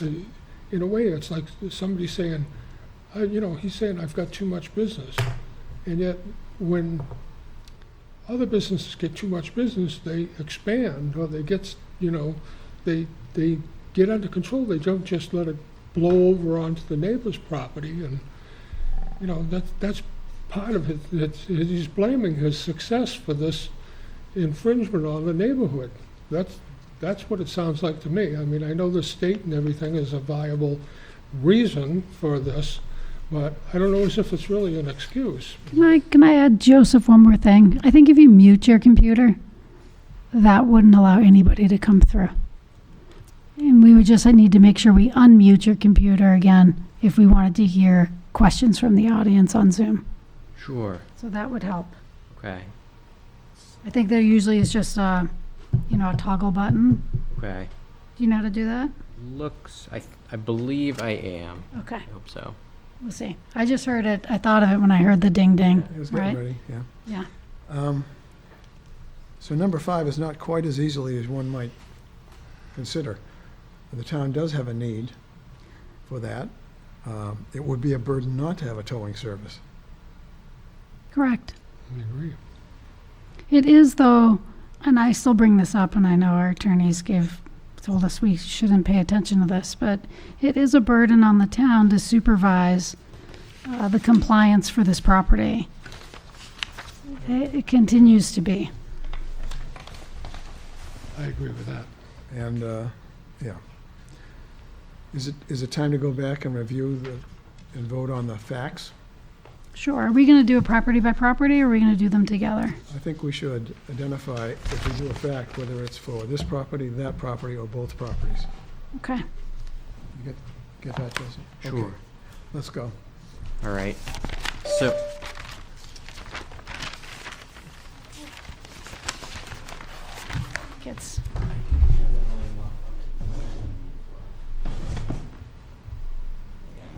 And In a way, it's like somebody saying, I- you know, he's saying, I've got too much business. And yet, when other businesses get too much business, they expand, or they get, s- you know, they, they get under control, they don't just let it blow over onto the neighbor's property, and, you know, that's, that's part of it, it's, he's blaming his success for this infringement on the neighborhood. That's, that's what it sounds like to me. I mean, I know the state and everything is a viable reason for this, but I don't know as if it's really an excuse. Can I, can I add, Joseph, one more thing? I think if you mute your computer, that wouldn't allow anybody to come through. And we would just, I need to make sure we unmute your computer again if we wanted to hear questions from the audience on Zoom. Sure, So that would help. okay, I think there usually is just a, you know, a toggle button. okay. Do you know how to do that? Looks, I, I believe I am, Okay, I hope so. we'll see. I just heard it, I thought of it when I heard the ding ding. It was right? getting ready, yeah. Yeah. Um, So number five is not quite as easily as one might consider. The town does have a need for that. Um, It would be a burden not to have a towing service. Correct. I agree. It is though, and I still bring this up, and I know our attorneys gave told us we shouldn't pay attention to this, but it is a burden on the town to supervise uh, the compliance for this property. It, it continues to be. I agree with that. And, uh, yeah. Is it, is it time to go back and review the, and vote on the facts? Sure. Are we going to do a property by property, or are we going to do them together? I think we should identify, if we do a fact, whether it's for this property, that property, or both properties. Okay. You get, get that, Jason? Okay, Sure. Let's go. All right, so. Kids.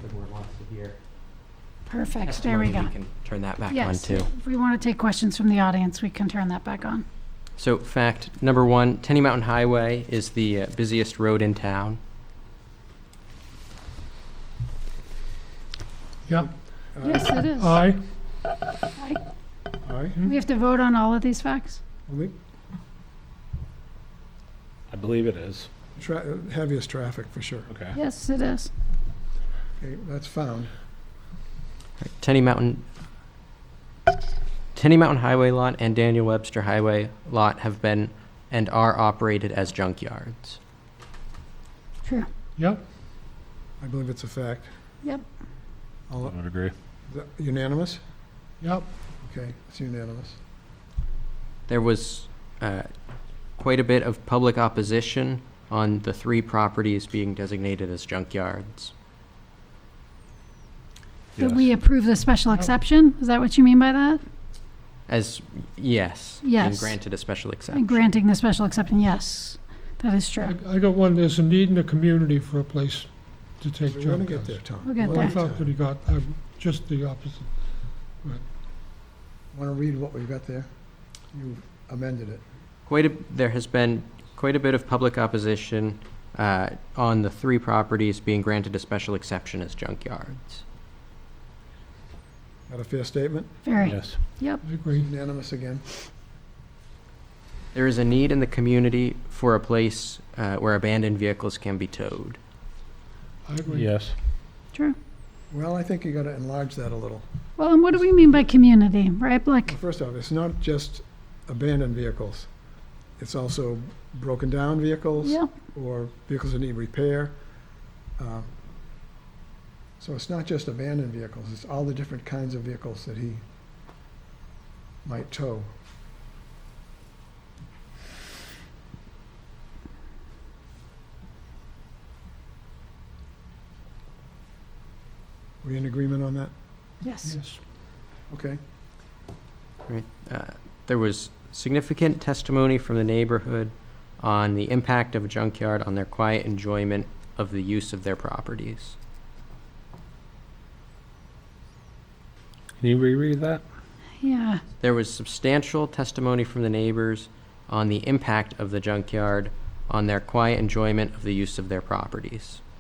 The board wants to hear. Perfect. There we testimony, go. can Turn that back on Yes. too. If we want to take questions from the audience, we can turn that back on. So fact number one, Tenny Mountain Highway is the uh, busiest road in town. Yeah, Uh, Yes, it is. aye. Aye? We have to vote on all of these facts? Well, we- I believe it is. Tra- heaviest traffic, for sure. Okay. Yes, it is. Okay, that's found. Tenny Mountain, Tenny Mountain Highway Lot and Daniel Webster Highway Lot have been and are operated as junkyards. True. Yep, I believe it's a fact. Yep. All- would agree. is that Unanimous? yep. Okay, it's unanimous. There was uh, quite a bit of public opposition on the three properties being designated as junkyards. That we approve the special exception? Is that what you mean by that? As, yes. And Yes. granted a special exception. And granting the special exception, yes, that is I true. I got one, there's a need in the community for a place to take We're gonna junk get there, cars. Tom. We'll get Well, I there. thought that he got, uh, just the opposite. Want to read what we've got there? You've amended it. Quite a, there has been quite a bit of public opposition uh, on the three properties being granted a special exception as junkyards. Got a fair statement? Very. Yes. I agree. Unanimous again. There is a need in the community for a place uh, where abandoned vehicles can be towed. I agree. Yes. True. Well, I think you got to enlarge that a little. Well, and what do we mean by community, right? Like, Well, First off, it's not just abandoned vehicles. It's also broken down vehicles. yeah, or vehicles that need repair. Um, So it's not just abandoned vehicles, it's all the different kinds of vehicles that he might tow. We in agreement on that? yes. Yes. Okay. Uh, There was significant testimony from the neighborhood on the impact of a junkyard on their quiet enjoyment of the use of their properties. Can you reread that? Yeah, There was substantial testimony from the neighbors on the impact of the junkyard on their quiet enjoyment of the use of their properties.